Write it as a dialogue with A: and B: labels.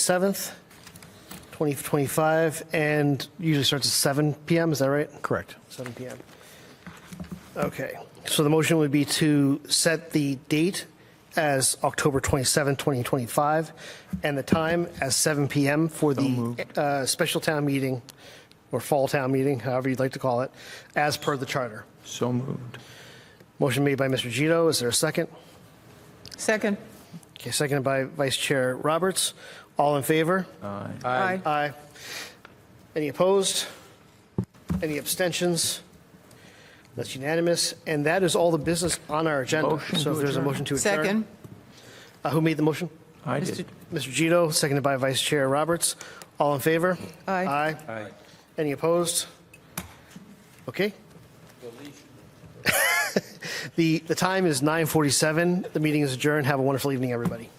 A: 27th, 2025, and usually starts at 7 PM, is that right?
B: Correct.
A: 7 PM. Okay, so the motion would be to set the date as October 27, 2025, and the time as 7 PM for the uh, special town meeting, or fall town meeting, however you'd like to call it, as per the charter.
B: So moved.
A: Motion made by Mr. Gito, is there a second?
C: Second.
A: Okay, seconded by Vice Chair Roberts. All in favor?
C: Aye.
A: Aye. Any opposed? Any abstentions? That's unanimous, and that is all the business on our agenda.
B: Motion
A: So if
B: to
A: there's a
B: adjourn.
A: motion to adjourn.
C: Second.
A: Uh, Who made the motion?
B: I
C: Mr.
B: did.
A: Mr. Gito, seconded by Vice Chair Roberts. All in favor?
C: Aye.
A: Aye. Any opposed? Okay. The, the time is 9:47. The meeting is adjourned. Have a wonderful evening, everybody.